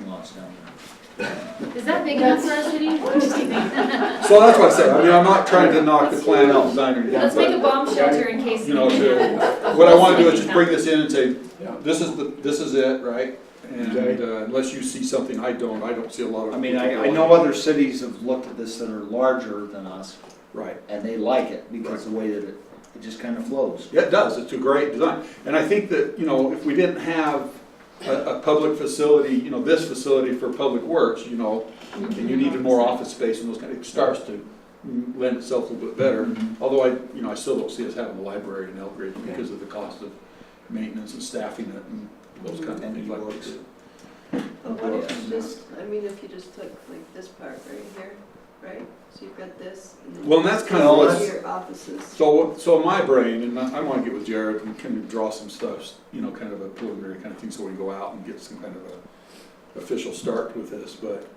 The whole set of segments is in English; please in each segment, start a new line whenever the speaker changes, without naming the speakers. house down there.
Is that big enough for our city? What do you think?
So that's what I said, I mean, I'm not trying to knock the plan out design or anything,
Let's make
but-
a bomb shelter in case.
You know, to, what I wanna do is just bring this in and say, this is the, this is it, right? And
Okay.
uh, unless you see something I don't, I don't see a lot of.
I mean, I, I know other cities have looked at this that are larger than us,
Right,
and they like it because of the way that it, it just kind of flows.
Yeah, it does, it's a great design, and I think that, you know, if we didn't have a, a public facility, you know, this facility for public works, you know, and you needed more office space and those kind of, it starts to lend itself a little bit better. Although I, you know, I still don't see us having a library in Elbridge because of the cost of maintenance and staffing it and those kind of
And
things like
works.
this.
But what if you just, I mean, if you just took like this part right here, right? So you've got this. and then
Well, and that's kind
of
all
what's-
Your offices.
So, so in my brain, and I, I wanna get with Jared and kind of draw some stuff, you know, kind of a preliminary kind of thing, so we can go out and get some kind of a official start with this, but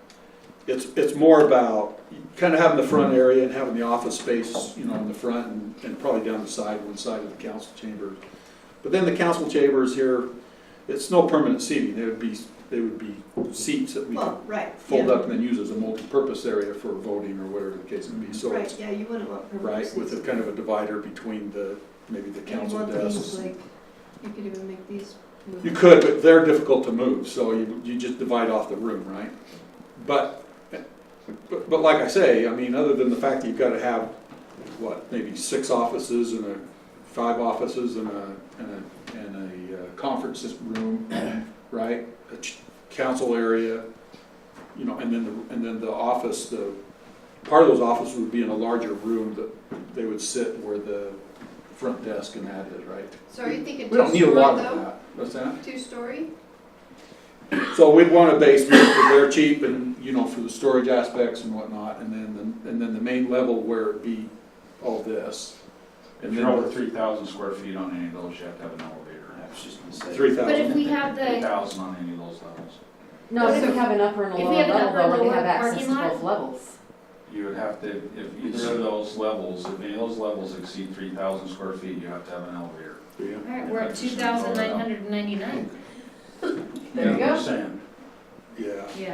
it's, it's more about kind of having the front
Mm-hmm.
area and having the office space, you know, in the front and, and probably down the side, one side of the council chambers. But then the council chambers here, it's no permanent seating, there would be, there would be seats that we could
Well, right.
fold
yeah.
up and then use as a multi-purpose area for voting or whatever the case may be, so it's
Right, yeah, you wouldn't want
right,
permanent.
with a kind of a divider between the, maybe the
You
council
want these
desks.
like, you could even make these.
You could, but they're difficult to move, so you, you just divide off the room, right? But, but, but like I say, I mean, other than the fact that you've gotta have, what, maybe six offices and a, five offices and a, and a, and a uh, conference room, right? A ch- council area, you know, and then, the and then the office, the, part of those offices would be in a larger room that they would sit where the front desk and that is, right?
So are you thinking
We don't need a
two-story
lot of
though?
that. What's that?
Two-story?
So we'd want a basement, because they're cheap and, you know, for the storage aspects and whatnot, and then, the- and then the main level where it'd be all this.
If
And
you're over
then
three thousand square feet on any of those, you have to have an elevator. I was just gonna say.
three
But if
thousand.
we have
Three
the,
thousand on any of those levels.
No, if we have an upper and a
If we
lower
have an
level,
upper and
though, we
lower
have
parking
access to
lot?
both levels.
You would have to, if either of those levels, if any of those levels exceed three thousand square feet, you have to have an elevator.
all right, we're at two thousand nine hundred and ninety-nine.
There you
Yeah,
go.
I'm saying.
Yeah.
Yeah,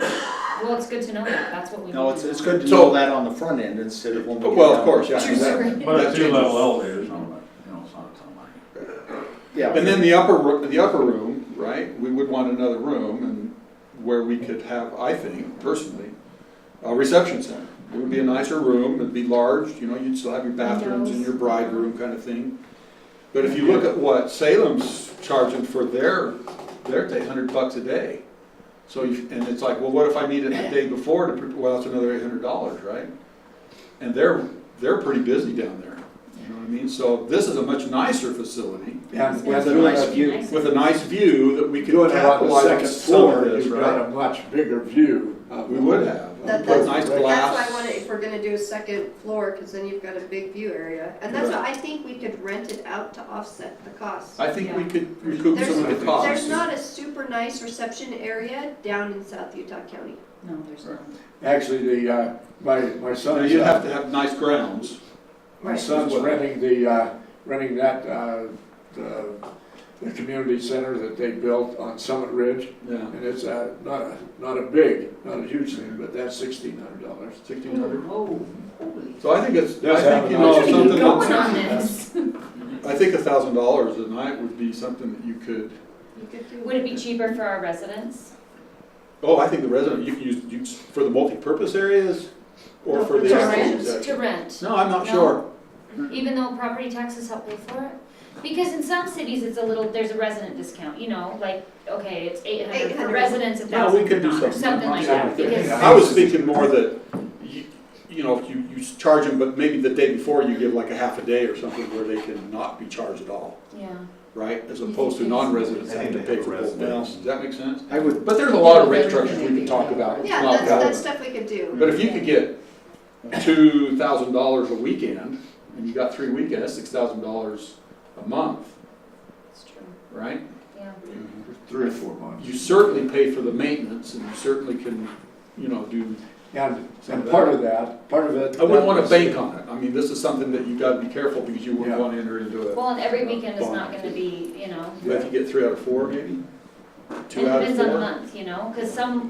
well, it's good to know that, that's what we.
No,
need
it's,
to
it's
know.
good to
So-
know that on the front end instead of when we get
Well, of
down.
course, yeah.
True story.
that-
But
that
a two-level
changes.
elevator is not, like, you know, it's not a ton of money.
Yeah.
And then the upper, ro- the upper room, right, we would want another room and where we could have, I think, personally, a reception center. It would be a nicer room, it'd be large, you know, you'd still have your bathrooms and your bride room kind of thing. But if you look at what Salem's charging for their, their eight hundred bucks a day. So, you- and it's like, well, what if I need it the day before to, pre- well, that's another eight hundred dollars, right? And they're, they're pretty busy down there, you know what I mean? So this is a much nicer facility
Yeah,
It's
with a
gonna be
nice view.
nice.
with a nice view that we could
Doing it on the
capitalize on
second
some of
floor,
this,
you've got a
right?
much bigger view. of-
We would have,
That-
put
that's-
nice
That's why I wanted,
glass.
if we're gonna do a second floor, because then you've got a big view area. And that's why I think we could rent it out to offset the cost.
I think we could recoup some of the
There's
costs.
not a super nice reception area down in South Utah County.
No, there's not.
Actually, the, uh, my, my
No,
son, uh,
You'd have to have nice grounds.
my son's renting the, uh, renting that, uh, the, the community center that they built on Summit Ridge.
Yeah.
And it's, uh, not a, not a big, not a huge thing, but that's sixteen hundred dollars.
Sixteen hundred.
Whoa, holy.
So I think it's,
That's
I think, you
how
know,
nice it
Keep
something,
going on
that-
this.
I think a thousand dollars a night would be something that you could,
You could do.
Would it be cheaper for our residents?
oh, I think the resident, you can use, you, for the multi-purpose areas or
No,
for
for
the
the
actual
residents.
section.
To rent,
No, I'm not
No.
sure.
even though property taxes help pay for it? Because in some cities, it's a little, there's a resident discount, you know, like, okay, it's eight hundred for
800.
residents, a
Yeah, we
thousand for
could do
not, or
something.
something like that, because.
I was thinking more that, you, you know, if you, you charge them, but maybe the day before you give like a half a day or something where they can not be charged at all,
Yeah.
right? As opposed to non-residents having to pay for both days. Does that make sense?
I would,
But there's a lot of rate structures we can talk about.
Yeah,
Not
that's, that's
that.
stuff we could do.
But if you could get two thousand dollars a weekend, and you got three weekends, that's six thousand dollars a month,
That's true,
right?
yeah.
Three or four months.
You certainly pay for the maintenance, and you certainly can, you know, do
And, and part of that, part of it.
I wouldn't want
that
to
was-
bank on it. I mean, this is something that you gotta be careful because you wouldn't
Yeah.
want to enter into it.
Well, and every weekend is not gonna be, you know,
But if you get three out of four, maybe?
it
Two out of
depends on the
four?
month, you know, cause some,